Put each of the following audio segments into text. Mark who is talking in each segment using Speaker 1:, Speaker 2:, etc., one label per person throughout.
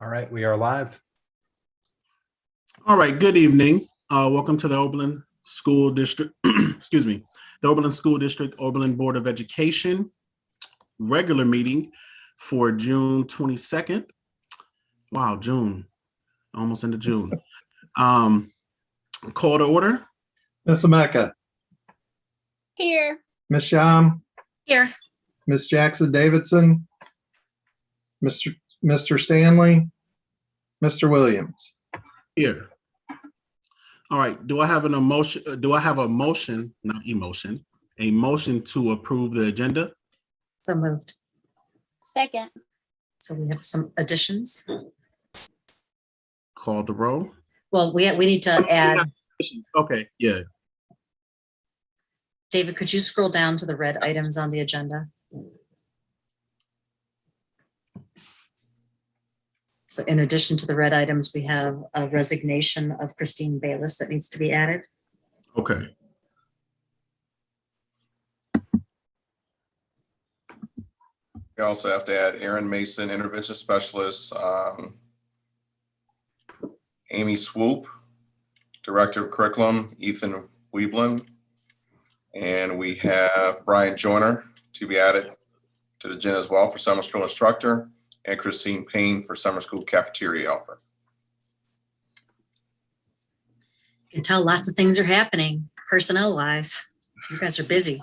Speaker 1: All right, we are live.
Speaker 2: All right, good evening. Uh, welcome to the Oberlin School District, excuse me, the Oberlin School District, Oberlin Board of Education regular meeting for June twenty-second. Wow, June, almost into June. Um, call to order.
Speaker 3: Ms. Ameca,
Speaker 4: Here.
Speaker 3: Ms. Sham,
Speaker 4: Here.
Speaker 3: Ms. Jackson Davidson, Mr. Mr. Stanley, Mr. Williams.
Speaker 2: Here. All right, do I have an emotion, uh, do I have a motion, not emotion, a motion to approve the agenda?
Speaker 5: So moved.
Speaker 4: Second.
Speaker 5: So we have some additions.
Speaker 2: Call the roll.
Speaker 5: Well, we, we need to add,
Speaker 2: Okay, yeah,
Speaker 5: David, could you scroll down to the red items on the agenda? So in addition to the red items, we have a resignation of Christine Bayless that needs to be added.
Speaker 2: okay.
Speaker 6: We also have to add Aaron Mason, intervention specialist, um, Amy Swoop, director of curriculum, Ethan Weeblin. And we have Brian Joyner to be added to the agenda as well for summer school instructor and Christine Payne for summer school cafeteria helper.
Speaker 5: You can tell lots of things are happening personnel wise. You guys are busy.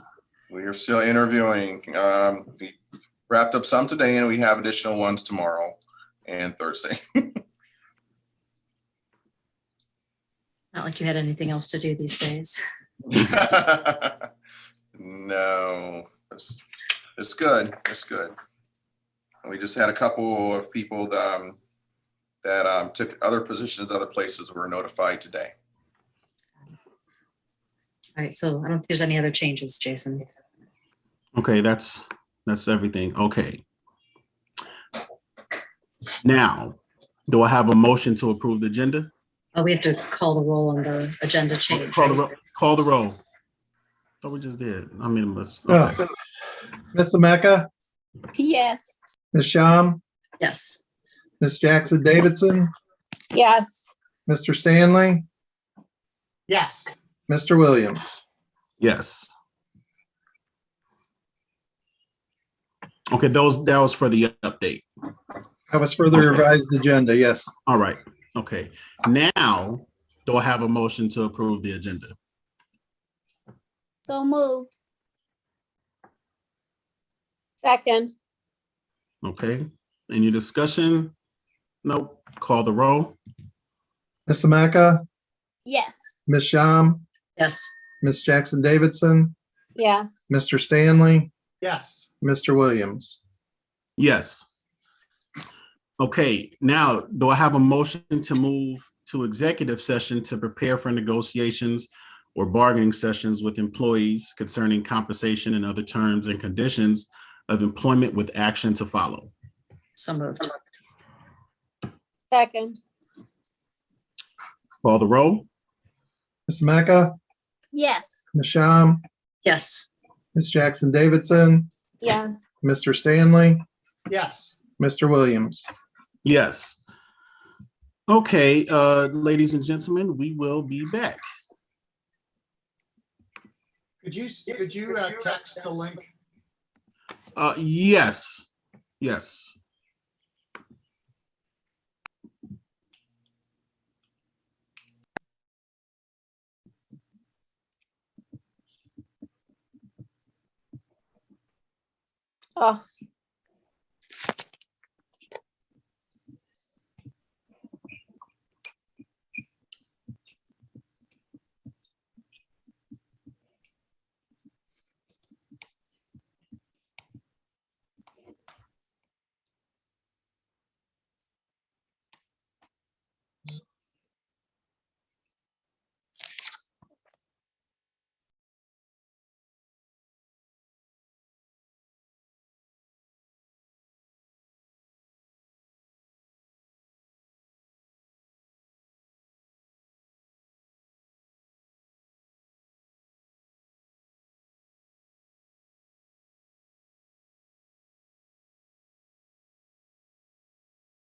Speaker 6: We are still interviewing. Um, we wrapped up some today and we have additional ones tomorrow and Thursday.
Speaker 5: Not like you had anything else to do these days.
Speaker 6: no, it's, it's good. It's good. And We just had a couple of people that, um, that um, took other positions, other places were notified today.
Speaker 5: All right, so I don't think there's any other changes, Jason.
Speaker 2: Okay, that's, that's everything. Okay. Now, do I have a motion to approve the agenda?
Speaker 5: Oh, we have to call the roll on the agenda change.
Speaker 2: Call the, ro- call the roll. Thought we just did. I mean, let's, okay.
Speaker 3: Ugh. Ms. Ameca,
Speaker 4: Yes.
Speaker 3: Ms. Sham,
Speaker 5: Yes,
Speaker 3: Ms. Jackson Davidson,
Speaker 4: Yes.
Speaker 3: Mr. Stanley,
Speaker 7: Yes,
Speaker 3: Mr. Williams.
Speaker 2: yes. Okay, those, that was for the update.
Speaker 3: That was further revised agenda, yes.
Speaker 2: All right, okay. Now, do I have a motion to approve the agenda?
Speaker 4: So moved. Second.
Speaker 2: Okay, any discussion? Nope, call the roll.
Speaker 3: Ms. Ameca,
Speaker 4: Yes.
Speaker 3: Ms. Sham,
Speaker 5: yes.
Speaker 3: Ms. Jackson Davidson,
Speaker 4: Yes.
Speaker 3: Mr. Stanley,
Speaker 7: yes,
Speaker 3: Mr. Williams.
Speaker 2: Yes. Okay, now, do I have a motion to move to executive session to prepare for negotiations or bargaining sessions with employees concerning compensation and other terms and conditions of employment with action to follow?
Speaker 5: So moved.
Speaker 4: Second.
Speaker 2: Call the roll?
Speaker 3: Ms. Ameca,
Speaker 4: Yes.
Speaker 3: Ms. Sham,
Speaker 5: Yes,
Speaker 3: Ms. Jackson Davidson,
Speaker 4: Yes.
Speaker 3: Mr. Stanley,
Speaker 7: yes.
Speaker 3: Mr. Williams.
Speaker 2: Yes. Okay, uh, ladies and gentlemen, we will be back.
Speaker 7: Could you, could you uh, text the link?
Speaker 2: Uh, yes, yes.
Speaker 8: Oh,